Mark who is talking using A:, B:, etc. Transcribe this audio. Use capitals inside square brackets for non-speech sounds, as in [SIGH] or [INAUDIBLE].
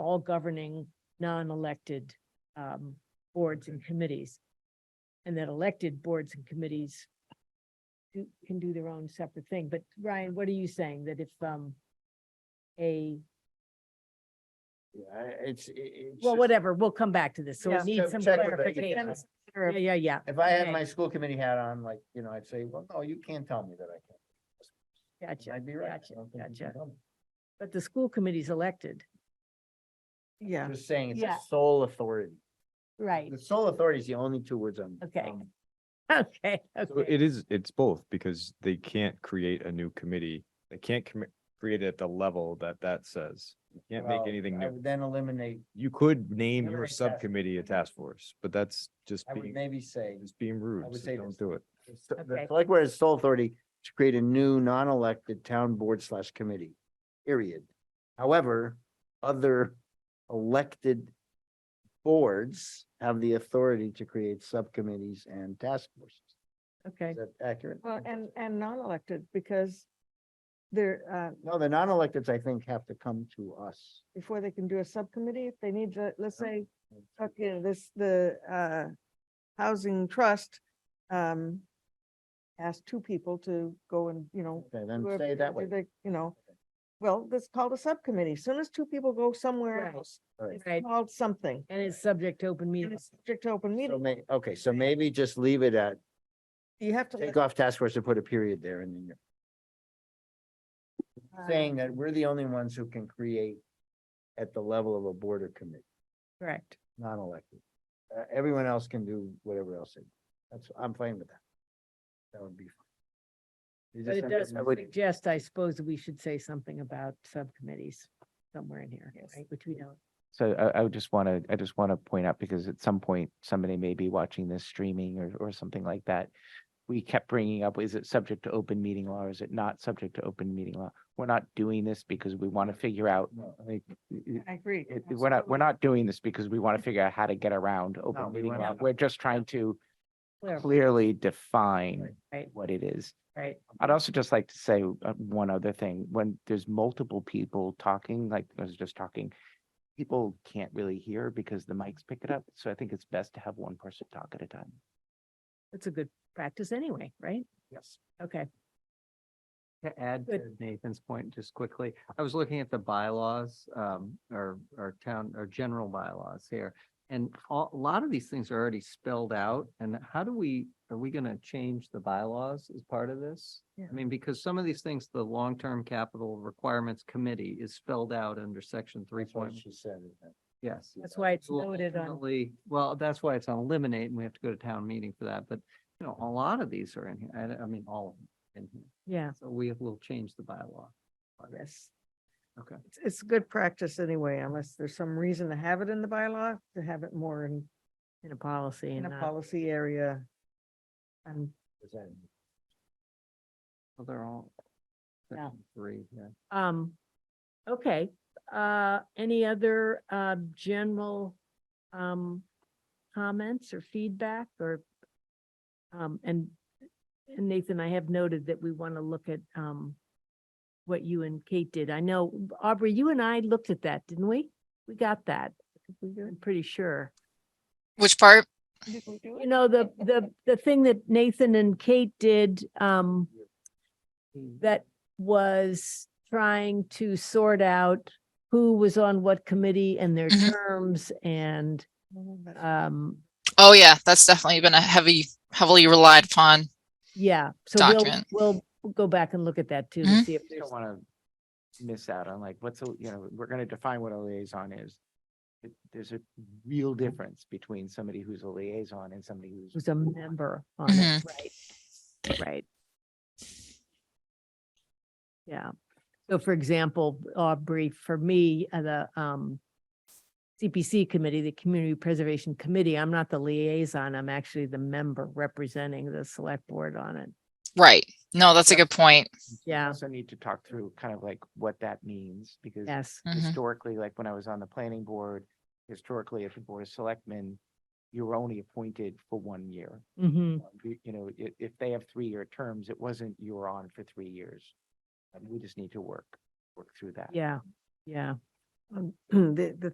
A: all governing non-elected um boards and committees. And that elected boards and committees do, can do their own separate thing. But Ryan, what are you saying? That if um a,
B: Yeah, I- it's, i- it's.
A: well,
B: just-
A: whatever, we'll come back to this. So
C: Yeah.
A: we need
B: Check-
A: some
B: check with the-
A: clarification.
C: Or
A: Yeah, yeah, yeah.
B: If I had
A: okay.
B: my school committee hat on, like, you know, I'd say, well, no, you can't tell me that I can't.
A: Gotcha.
B: I'd be right. I
A: gotcha,
B: don't think you can
A: gotcha.
B: tell me.
A: But the school committee's elected.
C: Yeah,
B: Just saying, it's
A: Yeah.
B: a sole authority.
A: Right.
B: The sole authority is the only two words I'm.
A: Okay.
B: um,
A: [LAUGHS] Okay,
D: So
A: okay.
D: It is, it's both because they can't create a new committee. They can't commi- create it at the level that that says. You can't make
B: well,
D: anything
B: I
D: new.
B: would then eliminate,
D: You could name
B: never
D: your
B: make task
D: subcommittee a task force, but that's just
B: I would
D: being,
B: maybe say,
D: just being rude.
B: would
D: so
B: say this.
D: Don't do it.
B: it's the- the
A: Okay.
B: select board has sole authority to create a new non-elected town board slash committee, period. However, other elected boards have the authority to create subcommittees and task forces.
A: Okay.
B: Is that accurate?
C: well, and, and non-elected because they're, uh,
B: No, the non-electeds, I think, have to come to us.
C: before they can do a subcommittee, if they need to, let's say,
B: I
C: okay, this, the, uh, housing trust, um, asked two people to go and, you know,
B: Okay, then
C: whoever-
B: say it that
C: do
B: way.
C: they- You know, well, that's called a subcommittee. Soon as two people go somewhere
A: Right.
C: else,
B: Right.
C: it's
A: Right.
C: called something.
A: And it's subject to open
C: And
A: meeting.
C: it's subject to open
B: So
C: meeting.
B: may, okay, so maybe just leave it at,
C: You have to.
B: take
C: let-
B: off task force and put a period there and then you're
C: uh,
B: saying that we're the only ones who can create at the level of a board or committee,
A: Correct.
B: non-elected. Uh, everyone else can do whatever else they, that's, I'm fine with that. That would be. fine. You
A: But
B: just
A: it
B: have to-
A: does
B: I would-
A: suggest, I suppose, that we should say something about subcommittees somewhere in here,
C: Yes.
A: right, which we don't.
E: So I, I would just want to, I just want to point out, because at some point, somebody may be watching this streaming or, or something like that. We kept bringing up, is it subject to open meeting law or is it not subject to open meeting law? We're not doing this because we want to figure out,
B: No,
E: like, it-
C: I agree.
E: it- we're not, we're not doing this because we want to figure out how to get around
B: No, we
E: open meeting
B: wanna-
E: law. We're just trying to
A: Clear,
E: clearly
B: Right.
E: define
A: Right.
E: what it is.
A: Right,
E: I'd also just like to say uh, one other thing, when there's multiple people talking, like I was just talking, people can't really hear because the mics pick it up, so I think it's best to have one person talk at a time.
A: that's a good practice anyway, right?
B: Yes.
A: Okay,
F: To add to
A: Good.
F: Nathan's point, just quickly, I was looking at the bylaws, um, or, or town, or general bylaws here. And a a lot of these things are already spelled out, and how do we, are we gonna change the bylaws as part of this?
C: Yeah.
F: I mean, because some of these things, the long-term capital requirements committee is spelled out under section three
B: That's what
F: point,
B: she said. isn't it?
F: yes.
A: that's why it's
F: So we'll
A: noted on,
F: ultimately- Well, that's why it's on eliminate, and we have to go to town meeting for that, but, you know, a lot of these are in here, I, I mean, all of them in here.
A: yeah,
F: So we will change the bylaw.
C: Yes.
F: Okay.
C: It's, it's good practice anyway, unless there's some reason to have it in the bylaw, to have it more in,
A: in a policy
C: in
A: and
C: a
A: not,
C: policy area. And
B: Is that-
F: Well, They're all.
A: Yeah.
F: section Three, yeah.
A: um, okay. Uh, any other, uh, general, um, comments or feedback or, um, and, and Nathan, I have noted that we want to look at, um, what you and Kate did. I know, Aubrey, you and I looked at that, didn't we? We got that. I'm pretty sure.
G: Which part?
A: You know, the, the, the thing that Nathan and Kate did, um, that was trying to sort out who was on what committee and their
G: Mhm.
A: terms and,
C: Mm-hmm,
A: um,
G: Oh yeah, that's definitely been a heavy, heavily relied upon.
A: yeah. So
G: Document.
A: we'll, we'll go back and look at that too, to
G: Mhm.
A: see if
E: You
A: there's,
E: don't want to miss out on like, what's, a you know, we're going to define what a liaison is. It- There's a real difference between somebody who's a liaison and somebody who's.
A: who's a member on it, right? Right. Yeah. So for example, Aubrey, for me, uh, the um CPC committee, the Community Preservation Committee, I'm not the liaison, I'm actually the member representing the select board on it.
G: Right. No, that's a good point.
E: We
A: Yeah.
E: Also need to talk through kind of like what that means, because
A: Yes,
G: Mhm.
E: historically, like when I was on the planning board, historically at the board of selectmen, you were only appointed for one year.
A: hmm
E: Um, You you know, if, if they have three-year terms, it wasn't you were on for three years. And we just need to work, work through that.
A: yeah, yeah.
C: um, [CLEARS THROAT] The, the